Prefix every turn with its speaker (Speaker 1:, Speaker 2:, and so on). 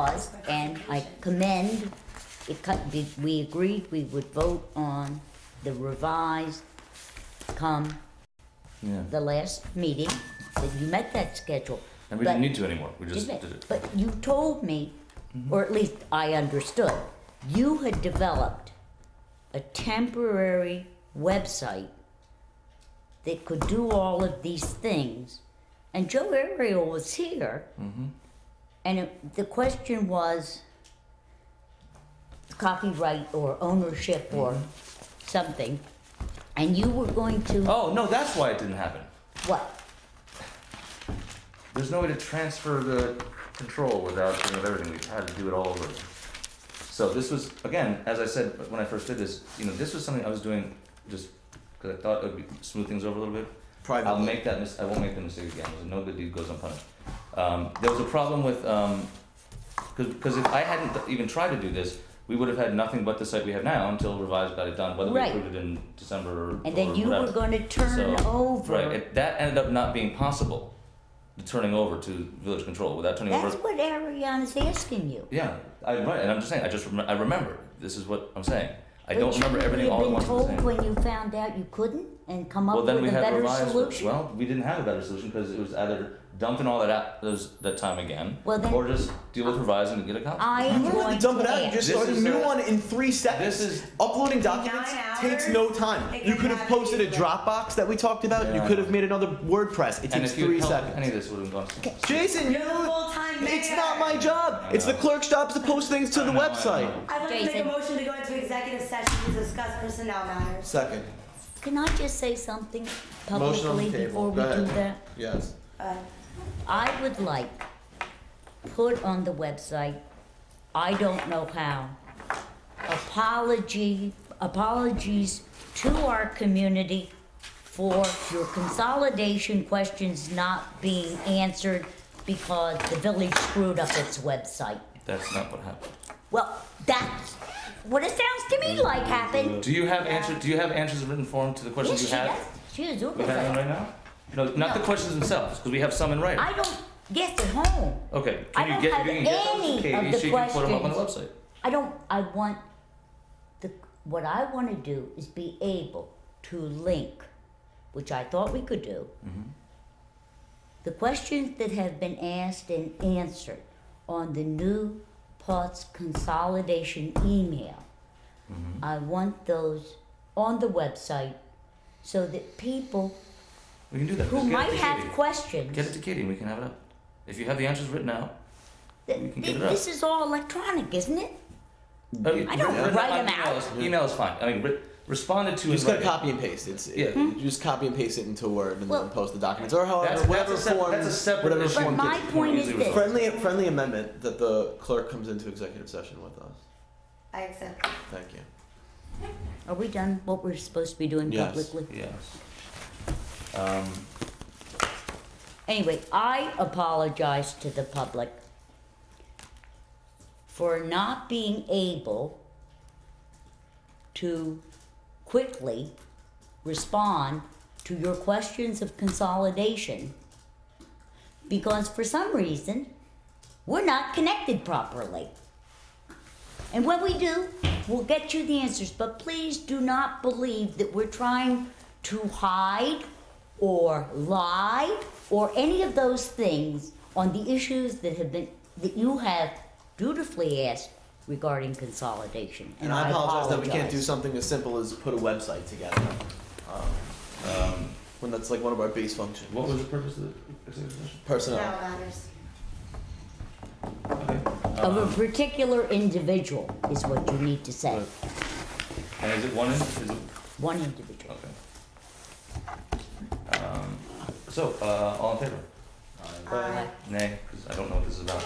Speaker 1: laws, and I commend, it cut, did- we agreed we would vote on the revised come
Speaker 2: Yeah.
Speaker 1: the last meeting, that you met that schedule.
Speaker 2: And we
Speaker 1: But-
Speaker 2: didn't need to anymore. We just
Speaker 1: Did it?
Speaker 2: did it.
Speaker 1: But you told me, or at least I understood, you had developed a temporary website that could do all of these things. And Joe Ariel was here. And it, the question was copyright or ownership or something. And you were going to,
Speaker 2: Oh no, that's why it didn't happen.
Speaker 1: what?
Speaker 2: There's no way to transfer the control without doing everything. We had to do it all over. So this was again, as I said when I first did this, you know, this was something I was doing just because I thought it would be, smooth things over a little bit. I'll
Speaker 3: Privately.
Speaker 2: make that mis- I won't make the mistake again. There's no good deed goes unpunished. Um, there was a problem with because because if I hadn't even tried to do this, we would have had nothing but the site we have now until revised got it done. Whether
Speaker 1: Right.
Speaker 2: we approved it in December or
Speaker 1: And then
Speaker 2: or
Speaker 1: you were
Speaker 2: whatever.
Speaker 1: going to turn
Speaker 2: So,
Speaker 1: over.
Speaker 2: Right, it, that ended up not being possible, the turning over to village control, without turning
Speaker 1: That's
Speaker 2: over.
Speaker 1: what Ariana's asking you.
Speaker 2: Yeah, I, right, and I'm just saying, I just, remem- I remember, this is what I'm saying. I
Speaker 1: But
Speaker 2: don't remember
Speaker 1: shouldn't
Speaker 2: everything
Speaker 1: you
Speaker 2: all at once
Speaker 1: have
Speaker 2: at the
Speaker 1: been
Speaker 2: same.
Speaker 1: told when you found out you couldn't and come up
Speaker 2: Well,
Speaker 1: with
Speaker 2: then we
Speaker 1: a
Speaker 2: had
Speaker 1: better
Speaker 2: revised,
Speaker 1: solution?
Speaker 2: well, we didn't have a better solution, because it was either dumping all that out, those, that time again,
Speaker 1: Well, then-
Speaker 2: or just deal with revising and get a copy.
Speaker 1: I am
Speaker 3: You don't have
Speaker 1: going
Speaker 3: to dump it
Speaker 1: to
Speaker 3: out. You just
Speaker 2: This
Speaker 3: start a
Speaker 2: is
Speaker 3: new
Speaker 2: a-
Speaker 3: one in three seconds.
Speaker 2: This is-
Speaker 3: uploading documents
Speaker 4: Nine
Speaker 3: takes
Speaker 4: hours?
Speaker 3: no time.
Speaker 4: It
Speaker 3: You
Speaker 4: can
Speaker 3: could have
Speaker 4: happen
Speaker 3: posted a
Speaker 4: easily.
Speaker 3: Dropbox that we talked about.
Speaker 2: Yeah.
Speaker 3: You could have made another WordPress. It
Speaker 2: And
Speaker 3: takes
Speaker 2: if you
Speaker 3: three
Speaker 2: had helped, any
Speaker 3: seconds.
Speaker 2: of this would have gone.
Speaker 3: Jason,
Speaker 4: You're
Speaker 3: you
Speaker 4: the full-time mayor.
Speaker 3: it's not my job. It's the clerk's job to post things to
Speaker 2: I
Speaker 3: the
Speaker 2: know, I
Speaker 3: website.
Speaker 2: know.
Speaker 4: I'd like to make a
Speaker 1: Jason.
Speaker 4: motion to go into executive session to discuss personnel matters.
Speaker 3: Second.
Speaker 1: Can I just say something
Speaker 3: Motion on the
Speaker 1: publicly before
Speaker 3: table.
Speaker 1: we
Speaker 3: Go
Speaker 1: do
Speaker 3: ahead.
Speaker 1: that?
Speaker 3: Yes.
Speaker 4: Uh,
Speaker 1: I would like put on the website, I don't know how, apology, apologies to our community for your consolidation questions not being answered because the village screwed up its website.
Speaker 2: That's not what happened.
Speaker 1: Well, that's what it sounds to me like happened.
Speaker 2: Do you have answer, do you have answers in written form to the questions
Speaker 1: Yes,
Speaker 2: you
Speaker 1: she
Speaker 2: had?
Speaker 1: does. She is
Speaker 2: We have them
Speaker 1: organized.
Speaker 2: right now? No, not the
Speaker 1: No.
Speaker 2: questions themselves, because we have some in writing.
Speaker 1: I don't get at home.
Speaker 2: Okay,
Speaker 1: I
Speaker 2: can you
Speaker 1: don't
Speaker 2: get,
Speaker 1: have
Speaker 2: you can get those to
Speaker 1: any of
Speaker 2: Katie,
Speaker 1: the
Speaker 2: she can put them up on the website.
Speaker 1: questions. I don't, I want, the, what I wanna do is be able to link, which I thought we could do. The questions that have been asked and answered on the new parts consolidation email. I want those on the website so that people
Speaker 2: We can do that.
Speaker 1: who
Speaker 2: Just get it
Speaker 1: might
Speaker 2: to
Speaker 1: have
Speaker 2: Katie.
Speaker 1: questions.
Speaker 2: Get it to Katie and we can have it up. If you have the answers written out. Uh,
Speaker 1: th-
Speaker 2: we can
Speaker 1: th-
Speaker 2: get it up.
Speaker 1: This is all electronic, isn't it?
Speaker 2: I don't
Speaker 1: write them out.
Speaker 2: Email is fine. I mean, re- responded to
Speaker 3: You
Speaker 2: in
Speaker 3: just gotta
Speaker 2: writing.
Speaker 3: copy and paste. It's
Speaker 2: Yeah.
Speaker 3: it- you just copy and paste it into Word and
Speaker 1: Well-
Speaker 3: then post the documents or however
Speaker 2: That's- that's a
Speaker 3: whatever
Speaker 2: sep-
Speaker 3: form
Speaker 2: that's a separate
Speaker 3: whatever
Speaker 2: issue.
Speaker 3: form.
Speaker 1: But my
Speaker 3: gives you.
Speaker 1: point is
Speaker 2: Easily
Speaker 1: this.
Speaker 2: resolved.
Speaker 3: friendly friendly amendment that the clerk comes into executive session with us.
Speaker 4: I accept.
Speaker 3: Thank you.
Speaker 1: Are we done what we're supposed to be doing
Speaker 3: Yes.
Speaker 1: publicly?
Speaker 2: Yes. Um,
Speaker 1: Anyway, I apologize to the public for not being able to quickly respond to your questions of consolidation because for some reason we're not connected properly. And when we do, we'll get you the answers. But please do not believe that we're trying to hide or lie or any of those things on the issues that have been that you have dutifully asked regarding consolidation.
Speaker 3: And I apologize that we can't do
Speaker 1: apologize.
Speaker 3: something as simple as put a website together. Um, when that's like one of our base functions.
Speaker 2: what was the purpose of the executive session?
Speaker 3: Personnel.
Speaker 4: Personnel matters.
Speaker 2: Okay.
Speaker 1: of
Speaker 2: Um,
Speaker 1: a particular individual is what you need to say.
Speaker 2: Right. and is it one in? Is it,
Speaker 1: One individual.
Speaker 2: okay. Um, so, uh, all in favor?
Speaker 4: Aye.
Speaker 2: Nay, because I don't know what this is about.